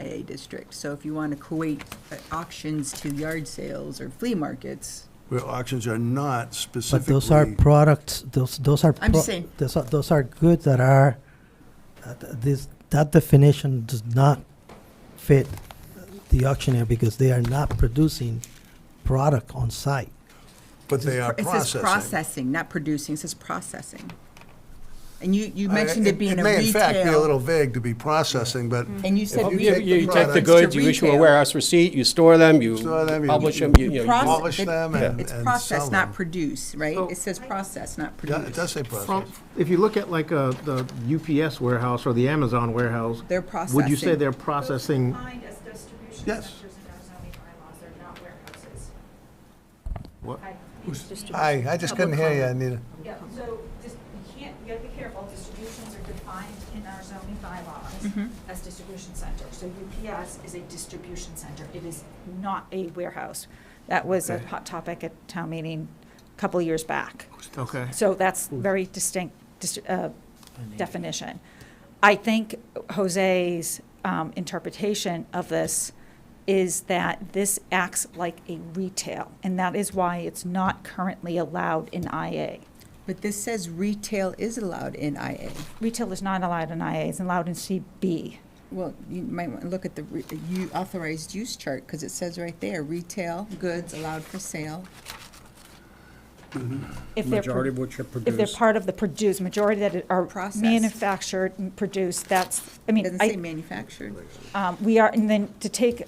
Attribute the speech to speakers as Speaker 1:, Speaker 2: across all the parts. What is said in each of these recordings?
Speaker 1: IA district. So if you want to equate uh, auctions to yard sales or flea markets,
Speaker 2: Where auctions are not
Speaker 3: But
Speaker 2: specifically.
Speaker 3: those are products, those, those are.
Speaker 1: I'm
Speaker 3: pro-
Speaker 1: saying-
Speaker 3: Those are, those are goods that are, that- that this, that definition does not fit the auctioneer because they are not producing product on site.
Speaker 2: But they are
Speaker 1: it says
Speaker 2: processing.
Speaker 1: processing, not producing, it says processing. And you, you
Speaker 2: I-
Speaker 1: mentioned it being a
Speaker 2: Uh, It may in fact be a
Speaker 1: retail, Mm-hmm.
Speaker 2: little vague to be processing, but.
Speaker 1: and you said.
Speaker 2: If
Speaker 1: we
Speaker 4: You
Speaker 2: you take
Speaker 1: the
Speaker 4: you take
Speaker 2: products
Speaker 4: the
Speaker 2: to
Speaker 4: goods, you issue a
Speaker 1: retail.
Speaker 4: warehouse receipt, you store them, you
Speaker 2: Store them, you-
Speaker 4: publish them, you, you know.
Speaker 1: Process-
Speaker 2: Polish
Speaker 1: it-
Speaker 2: them and-
Speaker 1: It's
Speaker 2: and
Speaker 1: process,
Speaker 2: sell
Speaker 1: not
Speaker 2: them.
Speaker 1: produce, right?
Speaker 5: So-
Speaker 1: It says process, not
Speaker 2: Yeah, it
Speaker 1: produce.
Speaker 2: does say
Speaker 5: From,
Speaker 2: process.
Speaker 5: if you look at like uh, the UPS warehouse or the Amazon warehouse,
Speaker 1: They're
Speaker 5: would you say
Speaker 1: processing.
Speaker 5: they're processing?
Speaker 6: defined as distribution
Speaker 2: Yes.
Speaker 6: centers in our zoning bylaws, they're not warehouses.
Speaker 5: What?
Speaker 6: I-
Speaker 2: Hi, I just couldn't hear you, Anita.
Speaker 6: Yeah, so just, you can't, you gotta be careful, distributions are defined in our zoning bylaws as distribution center. So UPS is a distribution center, it is not a warehouse. That was a
Speaker 2: Okay.
Speaker 6: hot topic at town meeting a couple of years back.
Speaker 5: Okay.
Speaker 6: So that's very distinct dis- uh, definition. I think Jose's um, interpretation of this is that this acts like a retail, and that is why it's not currently allowed in IA.
Speaker 1: But this says retail is allowed in IA.
Speaker 6: Retail is not allowed in IA, it's allowed in CB.
Speaker 1: Well, you might want to look at the re- you authorized use chart, because it says right there, retail goods allowed for sale.
Speaker 6: If they're pro-
Speaker 7: Majority of which are
Speaker 6: If they're
Speaker 7: produced.
Speaker 6: part of the produce, majority that are
Speaker 1: Processed.
Speaker 6: manufactured and produced, that's, I
Speaker 1: It
Speaker 6: mean,
Speaker 1: doesn't say
Speaker 6: I,
Speaker 1: manufactured.
Speaker 6: Um, We are, and then to take a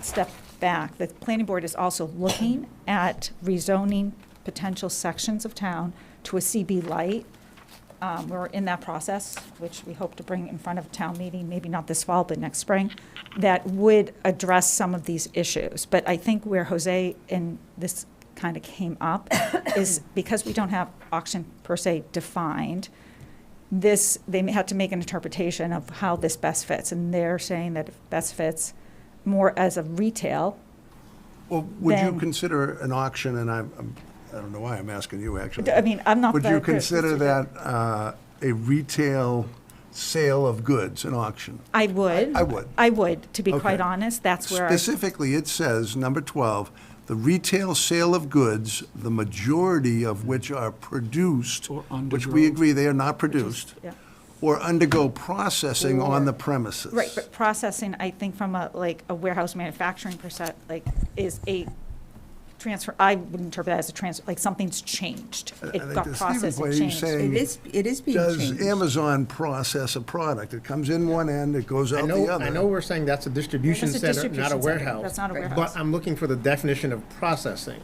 Speaker 6: step back, the planning board is also looking at rezoning potential sections of town to a CB light. Um, We're in that process, which we hope to bring in front of town meeting, maybe not this fall, but next spring, that would address some of these issues. But I think where Jose and this kind of came up is because we don't have auction per se defined, this, they had to make an interpretation of how this best fits, and they're saying that it best fits more as a retail.
Speaker 2: Well, would you
Speaker 6: Then-
Speaker 2: consider an auction, and I'm, I'm- I don't know why I'm asking you, actually.
Speaker 6: I mean, I'm not
Speaker 2: Would
Speaker 6: the-
Speaker 2: you consider that uh, a retail sale of goods, an auction?
Speaker 6: I would.
Speaker 2: I would.
Speaker 6: I would, to be quite
Speaker 2: Okay.
Speaker 6: honest, that's where, I-
Speaker 2: Specifically, it says, number 12, the retail sale of goods, the majority of which are produced,
Speaker 7: Or
Speaker 2: which we
Speaker 7: undergo.
Speaker 2: agree they are not produced,
Speaker 6: yeah.
Speaker 2: or undergo processing on the premises.
Speaker 6: right, but processing, I think from a, like, a warehouse manufacturing percent, like, is a transfer, I would interpret that as a transfer, like, something's changed.
Speaker 2: I
Speaker 6: It
Speaker 2: think
Speaker 6: got
Speaker 2: to Stephen's
Speaker 6: processed,
Speaker 2: point,
Speaker 6: it
Speaker 2: he's
Speaker 6: changed.
Speaker 2: saying-
Speaker 1: It is, it is being
Speaker 2: Does
Speaker 1: changed.
Speaker 2: Amazon process a product? It comes in one end, it goes
Speaker 5: I
Speaker 2: out the
Speaker 5: know,
Speaker 2: other.
Speaker 5: I know we're saying that's a distribution
Speaker 6: That's a
Speaker 5: center, not a
Speaker 6: distribution center.
Speaker 5: warehouse.
Speaker 6: That's not a warehouse.
Speaker 5: But I'm looking for the definition of processing.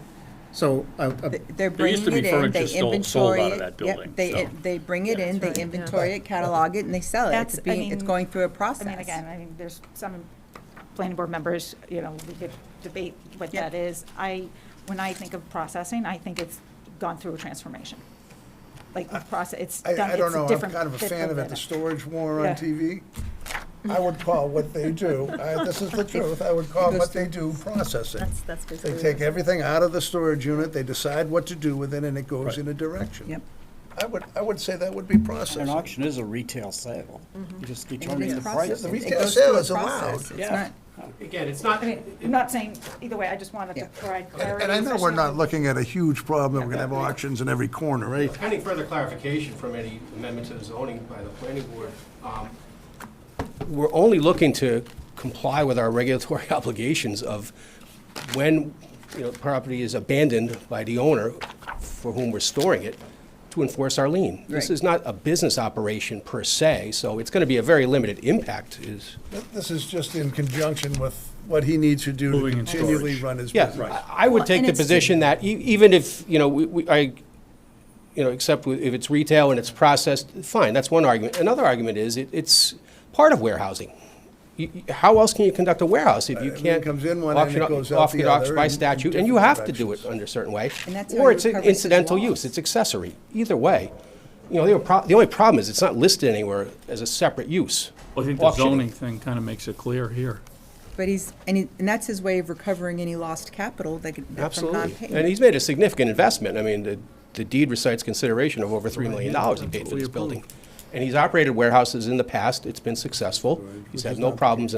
Speaker 5: So, uh, uh,
Speaker 1: They're
Speaker 7: There
Speaker 1: bringing
Speaker 7: used to
Speaker 1: it
Speaker 7: be
Speaker 1: in,
Speaker 7: furniture
Speaker 1: they
Speaker 7: sold- sold
Speaker 1: inventory
Speaker 7: out of
Speaker 1: it.
Speaker 7: that
Speaker 1: Yep,
Speaker 7: building,
Speaker 1: they,
Speaker 7: so.
Speaker 1: they bring it in, they
Speaker 6: right, yeah.
Speaker 1: inventory it, catalog it, and they sell it. It's
Speaker 6: That's- I
Speaker 1: being, it's
Speaker 6: mean-
Speaker 1: going through a
Speaker 6: I
Speaker 1: process.
Speaker 6: mean, again, I mean, there's some planning board members, you know, we could debate what
Speaker 1: Yeah.
Speaker 6: that is. I, when I think of processing, I think it's gone through a transformation. Like, the process, it's
Speaker 2: I,
Speaker 6: done,
Speaker 2: I don't
Speaker 6: it's
Speaker 2: know,
Speaker 6: a
Speaker 2: I'm
Speaker 6: different.
Speaker 2: kind of a fan of it, the
Speaker 6: different-
Speaker 2: storage war
Speaker 6: Yeah.
Speaker 2: on TV. I would call what they do, I- this is the truth, I would call what they do processing.
Speaker 1: That's, that's
Speaker 2: They
Speaker 1: basically.
Speaker 2: take everything out of the storage unit, they decide what to do with it, and it goes in a direction.
Speaker 1: Yep.
Speaker 2: I would, I would say that would be
Speaker 7: An
Speaker 2: processing.
Speaker 7: auction is a retail sale. You just determine
Speaker 1: It's
Speaker 7: the price.
Speaker 1: processed.
Speaker 2: The
Speaker 1: Mm-hmm. It-
Speaker 7: of
Speaker 1: it
Speaker 7: it.
Speaker 2: retail
Speaker 1: goes through
Speaker 2: sale
Speaker 1: a
Speaker 2: is allowed.
Speaker 1: process. It's
Speaker 7: Yeah.
Speaker 1: not,
Speaker 8: Again, it's not,
Speaker 6: I mean, I'm not saying, either way, I just wanted to
Speaker 1: Yeah.
Speaker 6: provide clarity.
Speaker 2: And I know we're
Speaker 6: especially-
Speaker 2: not looking at a huge problem, we're gonna have auctions in every corner, right?
Speaker 8: pending further clarification from any amendment to the zoning by the planning board, um, we're only looking to comply with our regulatory obligations of when, you know, property is abandoned by the owner for whom we're storing it, to enforce our lien. This
Speaker 1: Right.
Speaker 8: is not a business operation per se, so it's going to be a very limited impact is,
Speaker 2: This is just in conjunction with what he needs to do to
Speaker 7: Moving and
Speaker 2: continually
Speaker 7: storage.
Speaker 2: run his
Speaker 8: Yeah,
Speaker 2: business.
Speaker 8: I I would
Speaker 1: Well,
Speaker 8: take
Speaker 1: and
Speaker 8: the
Speaker 1: it's-
Speaker 8: position that e- even if, you know, we, we- I, you know, except wi- if it's retail and it's processed, fine, that's one argument. Another argument is it, it's part of warehousing. You- you- How else can you conduct a warehouse if you
Speaker 2: Everything
Speaker 8: can't?
Speaker 2: comes in one end,
Speaker 8: auction
Speaker 2: it
Speaker 8: o-
Speaker 2: goes out
Speaker 8: off
Speaker 2: the
Speaker 8: it off
Speaker 2: other
Speaker 8: By
Speaker 2: in
Speaker 8: statute,
Speaker 2: different
Speaker 8: and you have to do it
Speaker 2: directions.
Speaker 8: under a certain way.
Speaker 1: And that's how
Speaker 8: Or
Speaker 1: you
Speaker 8: it's an
Speaker 1: recover through the
Speaker 8: incidental
Speaker 1: walls.
Speaker 8: use, it's accessory, either way. You know, the only pro- the only problem is it's not listed anywhere as a separate use.
Speaker 7: I think the
Speaker 8: Auctioning.
Speaker 7: zoning thing kind of makes it clear here.
Speaker 1: but he's, and he, and that's his way of recovering any lost capital that could, that from
Speaker 8: Absolutely.
Speaker 1: non-payment.
Speaker 8: And he's made a significant investment. I mean, the- the deed recites consideration of over $3 million he paid for this building. And he's operated warehouses in the past. It's been successful. He's had no problems in